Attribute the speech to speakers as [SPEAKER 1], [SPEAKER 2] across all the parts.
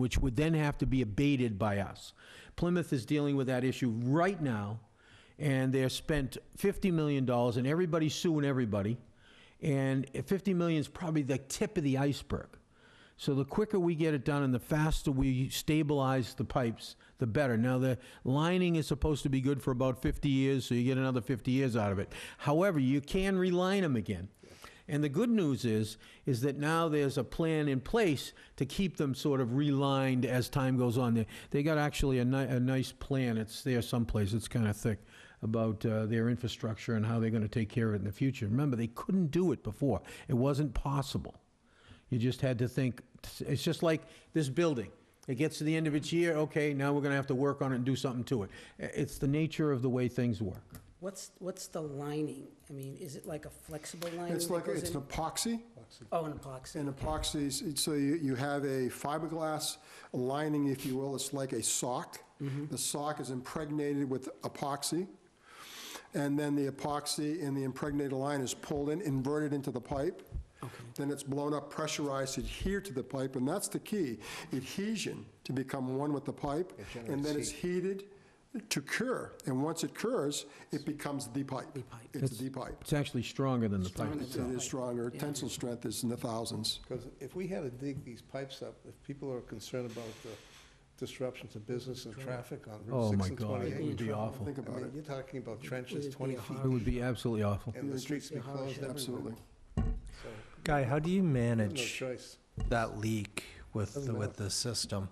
[SPEAKER 1] which would then have to be abated by us. Plymouth is dealing with that issue right now, and they're spent $50 million, and everybody's suing everybody, and $50 million is probably the tip of the iceberg. So the quicker we get it done and the faster we stabilize the pipes, the better. Now, the lining is supposed to be good for about 50 years, so you get another 50 years out of it. However, you can reline them again. And the good news is, is that now there's a plan in place to keep them sort of relined as time goes on. They, they got actually a, ni- a nice plan, it's there someplace, it's kind of thick, about uh, their infrastructure and how they're going to take care of it in the future. Remember, they couldn't do it before. It wasn't possible. You just had to think, it's just like this building. It gets to the end of its year, okay, now we're going to have to work on it and do something to it. It's the nature of the way things work.
[SPEAKER 2] What's, what's the lining? I mean, is it like a flexible lining?
[SPEAKER 3] It's
[SPEAKER 2] that
[SPEAKER 3] like,
[SPEAKER 2] goes
[SPEAKER 3] it's an
[SPEAKER 2] in?
[SPEAKER 3] epoxy,
[SPEAKER 2] Oh, an epoxy.
[SPEAKER 3] and epoxies, so you, you have a fiberglass lining, if you will, it's like a sock.
[SPEAKER 2] Mm-hmm.
[SPEAKER 3] The sock is impregnated with epoxy, and then the epoxy in the impregnated line is pulled in, inverted into the pipe. Then it's blown up, pressurized, adhered to the pipe, and that's the key, adhesion, to become one with the pipe. And then it's heated to cure, and once it cures, it becomes the pipe. The
[SPEAKER 2] pipe.
[SPEAKER 3] It's the pipe.
[SPEAKER 1] It's actually stronger than the pipe.
[SPEAKER 3] It is stronger. Tensile strength is in the thousands.
[SPEAKER 4] Because if we had to dig these pipes up, if people are concerned about the disruption to business and traffic on
[SPEAKER 1] Oh,
[SPEAKER 4] Route
[SPEAKER 1] my
[SPEAKER 4] 6 and
[SPEAKER 1] God, it would
[SPEAKER 4] 28.
[SPEAKER 1] be awful.
[SPEAKER 3] Think
[SPEAKER 4] I
[SPEAKER 3] about
[SPEAKER 4] mean,
[SPEAKER 3] it.
[SPEAKER 4] you're talking about trenches
[SPEAKER 2] It'd be
[SPEAKER 4] 20
[SPEAKER 2] a
[SPEAKER 4] feet
[SPEAKER 1] It would be absolutely awful.
[SPEAKER 4] and the streets be
[SPEAKER 2] a hardship.
[SPEAKER 4] closed everywhere.
[SPEAKER 3] Absolutely.
[SPEAKER 5] Guy, how do you
[SPEAKER 4] No
[SPEAKER 5] manage
[SPEAKER 4] choice.
[SPEAKER 5] that leak with, the- with the system?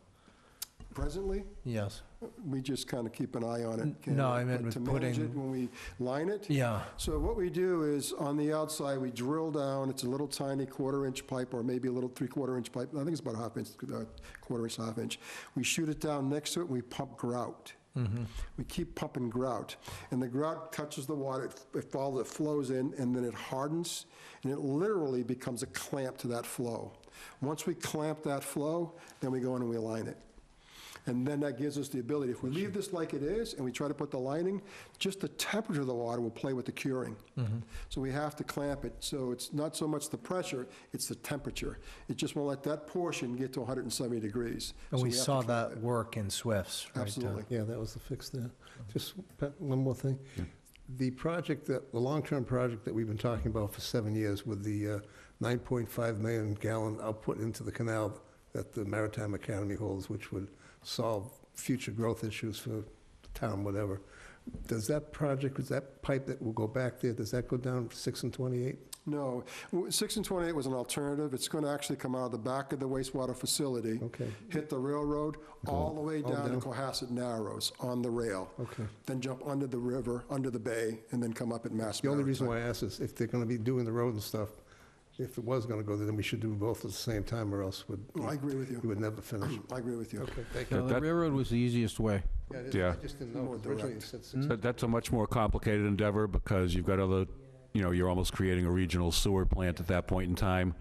[SPEAKER 3] Presently,
[SPEAKER 5] Yes.
[SPEAKER 3] we just kind of keep an eye on
[SPEAKER 5] N-
[SPEAKER 3] it. Ken,
[SPEAKER 5] no, I meant
[SPEAKER 3] but
[SPEAKER 5] with
[SPEAKER 3] To manage it
[SPEAKER 5] putting-
[SPEAKER 3] when we line it.
[SPEAKER 5] Yeah,
[SPEAKER 3] So what we do is, on the outside, we drill down, it's a little tiny quarter-inch pipe, or maybe a little three-quarter-inch pipe, I think it's about a half inch, uh, quarter-inch, half-inch. We shoot it down next to it, we pump grout.
[SPEAKER 5] Mm-hmm.
[SPEAKER 3] We keep pumping grout, and the grout touches the water, it f- it falls, it flows in, and then it hardens, and it literally becomes a clamp to that flow. Once we clamp that flow, then we go in and we align it. And then that gives us the ability, if we leave this like it is and we try to put the lining, just the temperature of the water will play with the curing. So we have to clamp it, so it's not so much the pressure, it's the temperature. It just won't let that portion get to 170 degrees.
[SPEAKER 5] and
[SPEAKER 3] So
[SPEAKER 5] we
[SPEAKER 3] have to
[SPEAKER 5] saw
[SPEAKER 3] clamp
[SPEAKER 5] that
[SPEAKER 3] it.
[SPEAKER 5] work in Swifts, right? Tom?
[SPEAKER 3] Absolutely.
[SPEAKER 4] Yeah, that was the fix there.
[SPEAKER 3] Mm-hmm.
[SPEAKER 4] Just pa- one more thing. The project that, the long-term project that we've been talking about for seven years with the uh, 9.5 million gallon output into the canal that the Maritime Academy holds, which would solve future growth issues for the town, whatever. Does that project, is that pipe that will go back there, does that go down 6 and 28?
[SPEAKER 3] No, W- 6 and 28 was an alternative, it's going to actually come out of the back of the wastewater facility,
[SPEAKER 4] Okay,
[SPEAKER 3] hit the railroad, all the way
[SPEAKER 4] All
[SPEAKER 3] down to
[SPEAKER 4] down.
[SPEAKER 3] Cohasset Narrows on the rail,
[SPEAKER 4] okay.
[SPEAKER 3] then jump under the river, under the bay, and then come up at Mass
[SPEAKER 4] The only
[SPEAKER 3] Maritime.
[SPEAKER 4] reason why I ask is if they're going to be doing the road and stuff, if it was going to go there, then we should do both at the same time or else would.
[SPEAKER 3] Well, Oh, I agree with
[SPEAKER 4] We
[SPEAKER 3] you,
[SPEAKER 4] would never finish.
[SPEAKER 3] I agree with you.
[SPEAKER 4] Okay, thank
[SPEAKER 1] No, the
[SPEAKER 6] That-
[SPEAKER 1] railroad was the easiest way.
[SPEAKER 6] Yeah.
[SPEAKER 4] just didn't
[SPEAKER 3] know. More Originally it direct.
[SPEAKER 1] Hmm?
[SPEAKER 6] That- That's a much more complicated endeavor because you've got other, you know, you're almost creating a regional sewer plant at that point in time.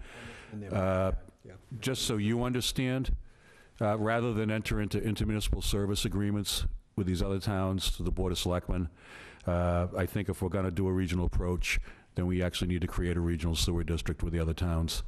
[SPEAKER 1] And they-
[SPEAKER 6] Uh,
[SPEAKER 4] Yeah.
[SPEAKER 6] Just so you understand, uh, rather than enter into intermunicipal service agreements with these other towns to the Board of Selectmen, uh, I think if we're going to do a regional approach, then we actually need to create a regional sewer district with the other towns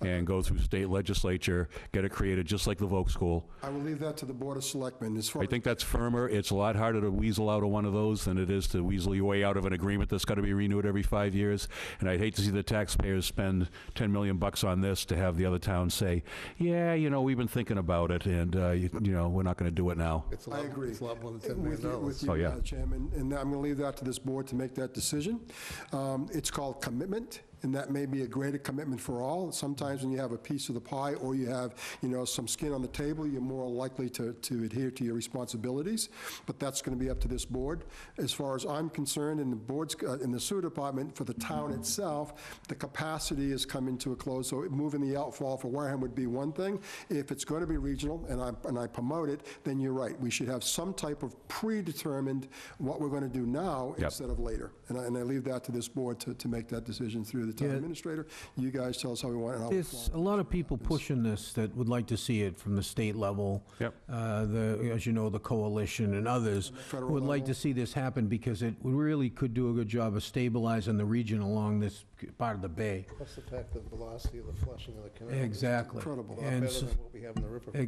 [SPEAKER 6] and go through state legislature, get it created, just like the Volk School,
[SPEAKER 3] I will leave that to the Board of Selectmen as far
[SPEAKER 6] I
[SPEAKER 3] as
[SPEAKER 6] think that's firmer. It's a lot harder to weasel out of one of those than it is to weasel your way out of an agreement that's got to be renewed every five years. And I'd hate to see the taxpayers spend 10 million bucks on this to have the other town say, yeah, you know, we've been thinking about it and, uh, you you know, we're not going to do it now.
[SPEAKER 4] It's a
[SPEAKER 3] I
[SPEAKER 4] lot,
[SPEAKER 3] agree.
[SPEAKER 4] it's a lot more than
[SPEAKER 3] Uh, with
[SPEAKER 4] $10
[SPEAKER 3] you-
[SPEAKER 4] million.
[SPEAKER 3] With you,
[SPEAKER 6] Oh, yeah.
[SPEAKER 3] uh, Chairman, and I'm going to leave that to this board to make that decision. Um, It's called commitment, and that may be a greater commitment for all. Sometimes when you have a piece of the pie, or you have, you know, some skin on the table, you're more likely to to adhere to your responsibilities, but that's going to be up to this board. As far as I'm concerned, in the board's, uh, in the sewer department, for the town itself, the capacity is coming to a close, so moving the outfall for Wareham would be one thing. If it's going to be regional, and I, and I promote it, then you're right. We should have some type of predetermined what we're going to do now
[SPEAKER 6] Yep.
[SPEAKER 3] instead of later. And I, and I leave that to this board to, to make that decision through the town
[SPEAKER 1] Yeah.
[SPEAKER 3] administrator. You guys tell us how we want it. and how we
[SPEAKER 1] There's a lot of people pushing this that would like to see it from the state level.
[SPEAKER 6] Yep.
[SPEAKER 1] Uh, The, as you know, the coalition and others
[SPEAKER 3] Federal
[SPEAKER 1] would like
[SPEAKER 3] level.
[SPEAKER 1] to see this happen because it really could do a good job of stabilizing the region along this part of the bay.
[SPEAKER 4] Plus the fact that velocity of the flushing of the canal. is
[SPEAKER 1] Exactly.
[SPEAKER 3] Incredible.
[SPEAKER 4] A lot
[SPEAKER 1] And
[SPEAKER 4] better
[SPEAKER 1] so-
[SPEAKER 4] than what we have in the river.